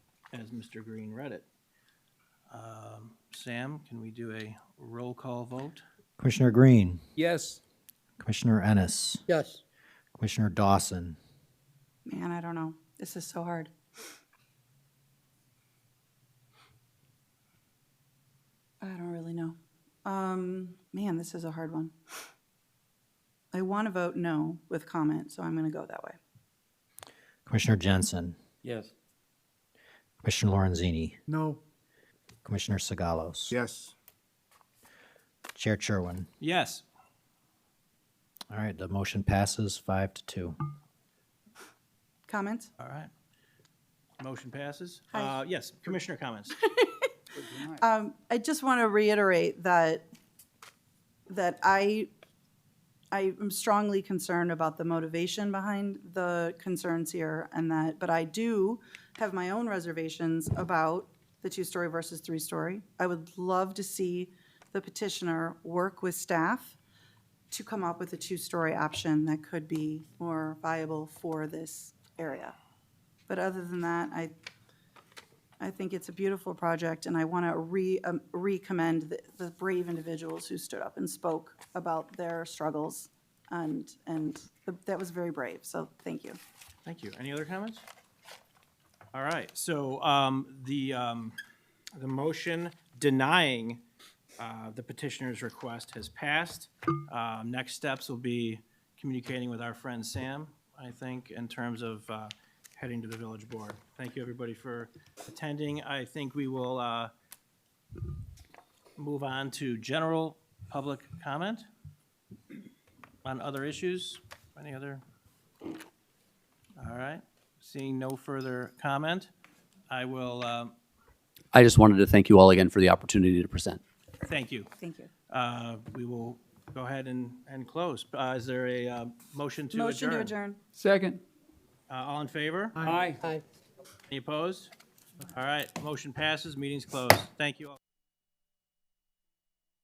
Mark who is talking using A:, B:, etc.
A: as Mr. Green read it. Um, Sam, can we do a roll call vote?
B: Commissioner Green,
C: Yes.
B: Commissioner Ennis,
C: Yes.
B: Commissioner Dawson,
D: Man, I don't know. This is so hard. I don't really know. Um, man, this is a hard one. I want to vote no with comment, so I'm going to go that way.
B: Commissioner Jensen,
C: Yes.
B: Commissioner Lorenzini,
C: No.
B: Commissioner Sagalos,
C: Yes.
B: Chair Sherwin.
A: Yes.
B: All right, the motion passes five to two.
D: Comments?
A: All right. Motion passes.
D: Hi.
A: Uh, Yes, Commissioner comments.
D: Um, I just want to reiterate that, that I, I am strongly concerned about the motivation behind the concerns here and that, but I do have my own reservations about the two-story versus three-story. I would love to see the petitioner work with staff to come up with a two-story option that could be more viable for this area. But other than that, I, I think it's a beautiful project, and I want to re, um, recommend the- the brave individuals who stood up and spoke about their struggles, and, and th- that was very brave, so thank you.
A: Thank you. Any other comments? All right, so um, the, um, the motion denying uh, the petitioner's request has passed. Um, Next steps will be communicating with our friend Sam, I think, in terms of uh, heading to the village board. Thank you, everybody, for attending. I think we will uh, move on to general public comment on other issues. Any other all right, seeing no further comment, I will, um,
E: I just wanted to thank you all again for the opportunity to present.
A: thank you.
D: Thank you.
A: Uh, We will go ahead and, and close. Uh, Is there a uh, motion to adjourn?
D: Motion to adjourn.
C: Second.
A: Uh, All in favor?
C: Aye. Aye.
A: Any opposed? All right, motion passes, meeting's closed. Thank you all.